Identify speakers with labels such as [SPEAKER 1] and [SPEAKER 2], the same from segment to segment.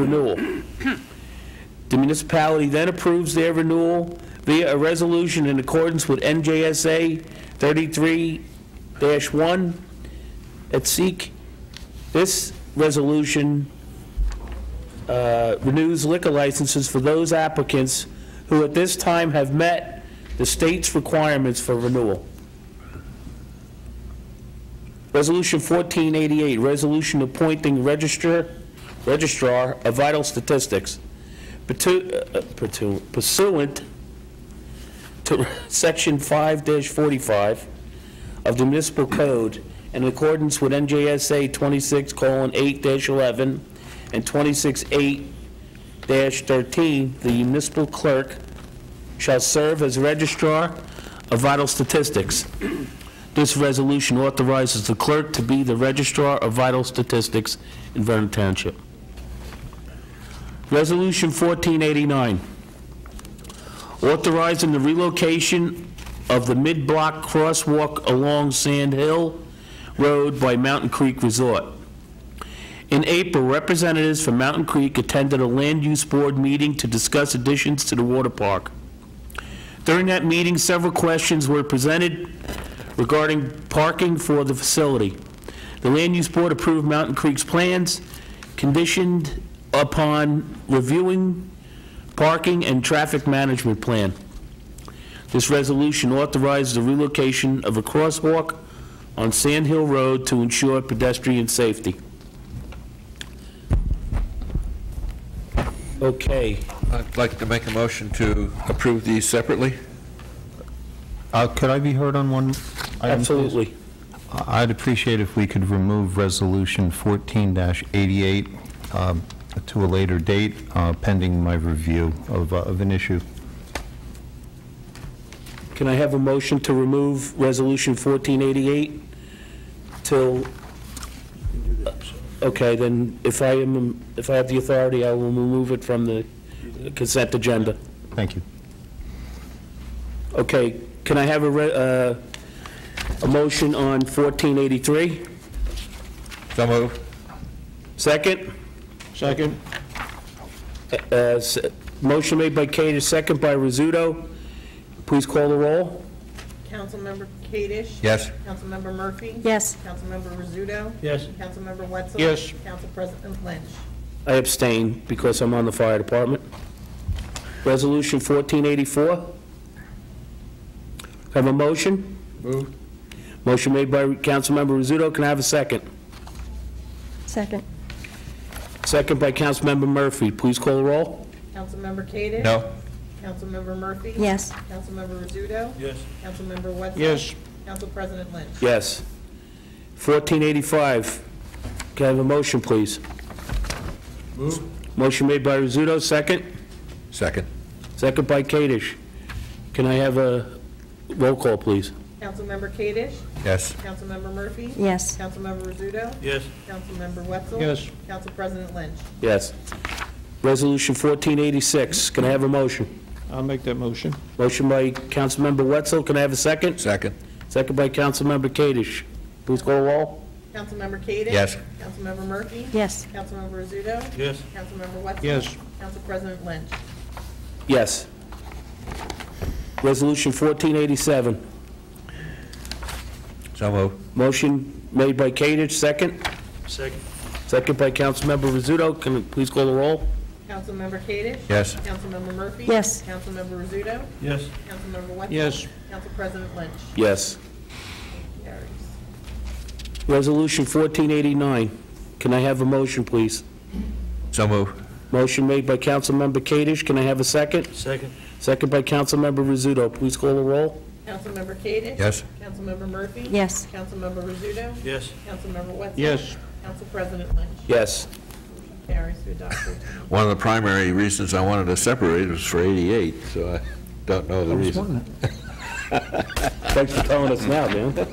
[SPEAKER 1] renewal. The municipality then approves their renewal via a resolution in accordance with NJSA 33-1 at SEEK. This resolution uh, renews liquor licenses for those applicants who at this time have met the state's requirements for renewal. Resolution 1488, resolution appointing registrar, registrar of vital statistics Purtu- uh, purtu- pursuant to Section 5-45 of the municipal code in accordance with NJSA 26:8-11 and 26:8-13, the municipal clerk shall serve as registrar of vital statistics. This resolution authorizes the clerk to be the Registrar of Vital Statistics in Vernon Township. Resolution 1489, authorizing the relocation of the mid-block crosswalk along Sand Hill Road by Mountain Creek Resort. In April, representatives from Mountain Creek attended a Land Use Board meeting to discuss additions to the water park. During that meeting, several questions were presented regarding parking for the facility. The Land Use Board approved Mountain Creek's plans conditioned upon reviewing parking and traffic management plan. This resolution authorizes the relocation of a crosswalk on Sand Hill Road to ensure pedestrian safety. Okay.
[SPEAKER 2] I'd like to make a motion to approve these separately.
[SPEAKER 3] Uh, Could I be heard on one? item, please?
[SPEAKER 1] Absolutely.
[SPEAKER 3] I- I'd appreciate if we could remove Resolution 14-88 um, to a later date, uh, pending my review of uh, of an issue.
[SPEAKER 1] Can I have a motion to remove Resolution 1488 till, okay, then if I am, if I have the authority, I will remove it from the consent agenda.
[SPEAKER 3] Thank you.
[SPEAKER 1] Okay, can I have a, re- uh, a motion on 1483?
[SPEAKER 2] So moved.
[SPEAKER 1] Second?
[SPEAKER 2] Second.
[SPEAKER 1] Uh, s- Motion made by Katie, second by Rizzuto. Please call the roll.
[SPEAKER 4] Councilmember Kadesh?
[SPEAKER 2] Yes.
[SPEAKER 4] Councilmember Murphy?
[SPEAKER 5] Yes.
[SPEAKER 4] Councilmember Rizzuto?
[SPEAKER 1] Yes.
[SPEAKER 4] Councilmember Wetzel?
[SPEAKER 1] Yes.
[SPEAKER 4] Council President Lynch?
[SPEAKER 1] I abstain because I'm on the fire department. Resolution 1484. Have a motion?
[SPEAKER 2] Moved.
[SPEAKER 1] Motion made by Councilmember Rizzuto. Can I have a second?
[SPEAKER 5] Second.
[SPEAKER 1] Second by Councilmember Murphy. Please call the roll.
[SPEAKER 4] Councilmember Kadesh?
[SPEAKER 2] No.
[SPEAKER 4] Councilmember Murphy?
[SPEAKER 5] Yes.
[SPEAKER 4] Councilmember Rizzuto? Yes. Councilmember Wetzel? Council President Lynch?
[SPEAKER 1] Yes. 1485. Can I have a motion, please? Motion made by Rizzuto, second.
[SPEAKER 2] Second.
[SPEAKER 1] Second by Kadesh. Can I have a roll call, please?
[SPEAKER 4] Councilmember Kadesh?
[SPEAKER 2] Yes.
[SPEAKER 4] Councilmember Murphy?
[SPEAKER 5] Yes.
[SPEAKER 4] Councilmember Rizzuto?
[SPEAKER 6] Yes.
[SPEAKER 4] Councilmember Wetzel?
[SPEAKER 6] Yes.
[SPEAKER 4] Council President Lynch?
[SPEAKER 1] Yes. Resolution 1486. Can I have a motion?
[SPEAKER 6] I'll make that motion.
[SPEAKER 1] Motion by Councilmember Wetzel, can I have a second?
[SPEAKER 2] Second.
[SPEAKER 1] Second by Councilmember Kadesh. Please call the roll.
[SPEAKER 4] Councilmember Kadesh?
[SPEAKER 2] Yes.
[SPEAKER 4] Councilmember Murphy?
[SPEAKER 5] Yes.
[SPEAKER 4] Councilmember Rizzuto?
[SPEAKER 6] Yes.
[SPEAKER 4] Councilmember Wetzel?
[SPEAKER 6] Yes.
[SPEAKER 4] Council President Lynch?
[SPEAKER 1] Yes. Resolution 1487,
[SPEAKER 2] So moved.
[SPEAKER 1] motion made by Kadesh, second.
[SPEAKER 6] Second.
[SPEAKER 1] Second by Councilmember Rizzuto, can you please call the roll?
[SPEAKER 4] Councilmember Kadesh?
[SPEAKER 2] Yes.
[SPEAKER 4] Councilmember Murphy?
[SPEAKER 5] Yes.
[SPEAKER 4] Councilmember Rizzuto?
[SPEAKER 6] Yes.
[SPEAKER 4] Councilmember Wetzel?
[SPEAKER 6] Yes.
[SPEAKER 4] Council President Lynch?
[SPEAKER 1] Yes.
[SPEAKER 4] Carries.
[SPEAKER 1] Resolution 1489, can I have a motion, please?
[SPEAKER 2] So moved.
[SPEAKER 1] Motion made by Councilmember Kadesh, can I have a second?
[SPEAKER 6] Second.
[SPEAKER 1] Second by Councilmember Rizzuto, please call the roll.
[SPEAKER 4] Councilmember Kadesh?
[SPEAKER 2] Yes.
[SPEAKER 4] Councilmember Murphy?
[SPEAKER 5] Yes.
[SPEAKER 4] Councilmember Rizzuto?
[SPEAKER 6] Yes.
[SPEAKER 4] Councilmember Wetzel?
[SPEAKER 6] Yes.
[SPEAKER 4] Council President Lynch?
[SPEAKER 1] Yes.
[SPEAKER 4] Carries to adopt fourteen.
[SPEAKER 2] One of the primary reasons I wanted to separate was for 88, so I don't know the reason.
[SPEAKER 1] Thanks for telling us now, man.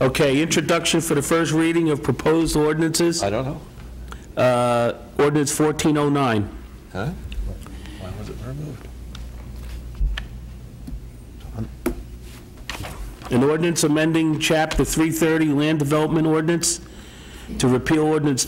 [SPEAKER 1] Okay, introduction for the first reading of proposed ordinances,
[SPEAKER 2] I don't know.
[SPEAKER 1] uh, ordinance 1409.
[SPEAKER 2] Huh? Why was it removed?
[SPEAKER 1] An ordinance amending Chapter 330 Land Development Ordinance to repeal ordinance